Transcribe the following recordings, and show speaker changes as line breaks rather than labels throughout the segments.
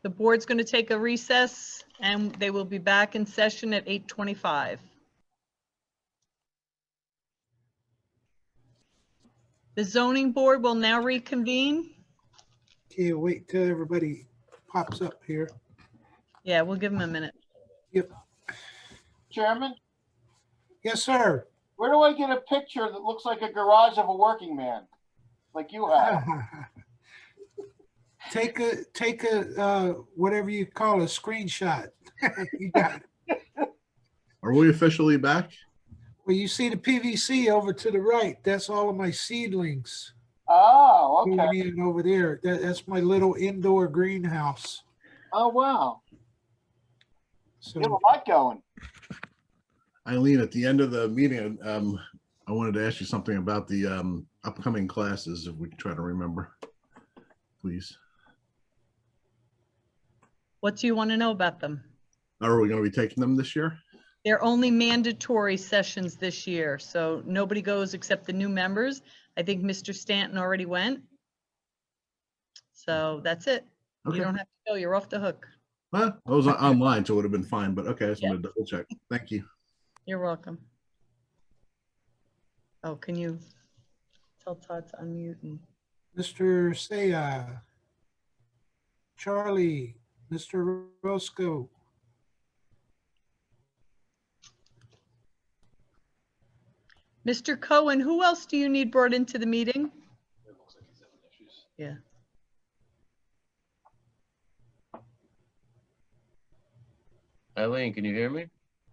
The board's going to take a recess and they will be back in session at 8:25. The zoning board will now reconvene.
Okay, wait till everybody pops up here.
Yeah, we'll give them a minute.
Chairman,
Yes, sir.
where do I get a picture that looks like a garage of a working man? Like you have?
Take a, take a, uh, whatever you call a screenshot. You got it.
Are we officially back?
Well, you see the PVC over to the right, that's all of my seedlings
Oh, okay.
going in over there. That, that's my little indoor greenhouse.
Oh, wow. You have a
So,
lot going.
Eileen, at the end of the meeting, um, I wanted to ask you something about the, um, upcoming classes, if we can try to remember. Please.
What do you want to know about them?
Are we gonna be taking them this year?
They're only mandatory sessions this year, so nobody goes except the new members. I think Mr. Stanton already went. So that's it. You
Okay,
don't have to go. You're off the hook.
well, I was on- online, so it would have been fine, but okay, I just
Yeah.
wanted to double check. Thank you.
You're welcome. Oh, can you tell Todd to unmute and,
Mr. Saya, uh, Charlie, Mr. Roscoe.
Mr. Cohen, who else do you need brought into the meeting? Yeah.
Eileen, can you hear me?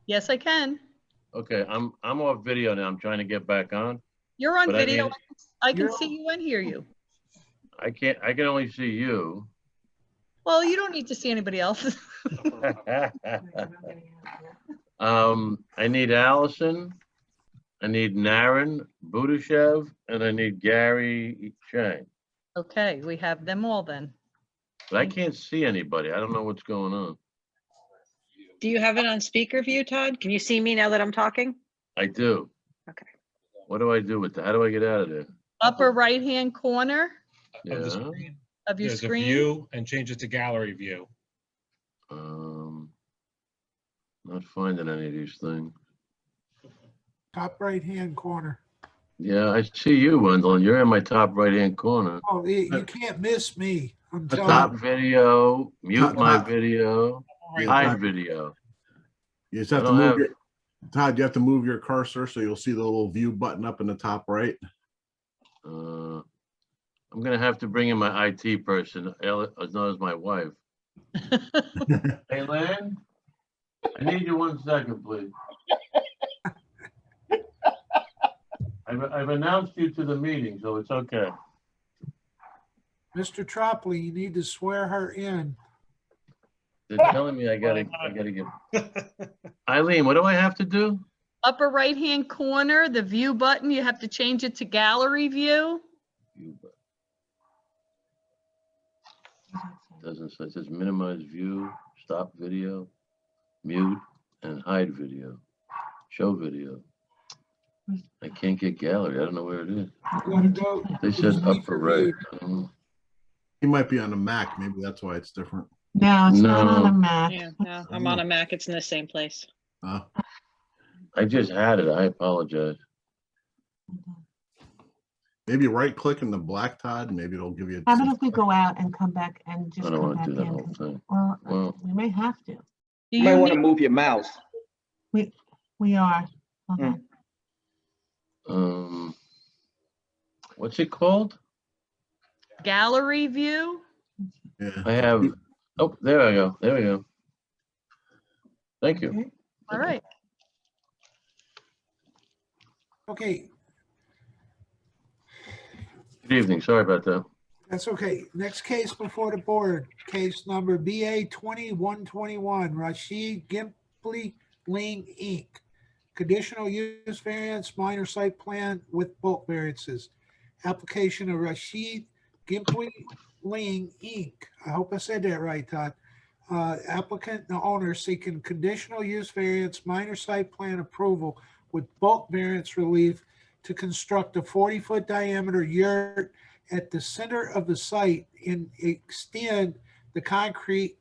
Yes, I can.
Okay, I'm, I'm off video now. I'm trying to get back on.
You're on
But I
video.
mean-
I can
You're-
see you and hear you.
I can't, I can only see you.
Well, you don't need to see anybody else.
Um, I need Allison. I need Naren Budashev, and I need Gary Chang.
Okay, we have them all then.
But I can't see anybody. I don't know what's going on.
Do you have it on speaker view, Todd? Can you see me now that I'm talking?
I do.
Okay.
What do I do with that? How do I get out of there?
Upper right-hand corner
of the
Yeah,
screen.
of your
There's a
screen.
view and change it to gallery view.
um, not finding any of these things.
Top right-hand corner.
Yeah, I see you, Wendell, and you're in my top right-hand corner.
Oh, you you can't miss me. I'm telling
Stop
you.
video, mute
Top-
my
top.
video,
Yeah,
hide video.
You just have
I
to
don't
move
have-
your, Todd, you have to move your cursor, so you'll see the little view button up in the top right.
Uh, I'm gonna have to bring in my IT person, Al- as well as my wife. Hey, Lynn? I need you one second, please. I've, I've announced you to the meeting, so it's okay.
Mr. Tropley, you need to swear her in.
They're telling me I gotta, I gotta get. Eileen, what do I have to do?
Upper right-hand corner, the view button, you have to change it to gallery view.
Mm-hmm.
Doesn't, say- it says minimize view, stop video, mute, and hide video, show video. I can't get gallery, I don't know where it is.
You gotta go.
They said
Mm-hmm.
upper right. Mm-hmm. I don't know.
He might be on the Mac, maybe that's why it's different.
No, it's not on
No.
a Mac.
Yeah, no, I'm on a Mac. It's in the same place.
Uh,
I just had it, I apologize.
maybe right click in the black, Todd, maybe it'll give you.
How about if we go out and come back and just
I don't
come
wanna
back
do that whole
in?
thing.
Well,
Well-
we may have to.
Do
You might
you
want to
need-
move your mouse.
We are. Hold
Hmm.
on.
Um, what's it called?
gallery view?
Yeah,
I have, oh, there I go, there we go. Thank you.
Okay.
All right.
Okay,
Good evening, sorry about that.
that's okay. Next case before the board, case number BA twenty-one twenty-one, Rashid Gimpy Ling Inc. Conditional use variance, minor site plan with bulk variances. Application of Rashid Gimpy Ling Inc. I hope I said that right, Todd. Uh, applicant and owner seeking conditional use variance, minor site plan approval with bulk variance relief to construct a forty-foot diameter yurt at the center of the site and extend the concrete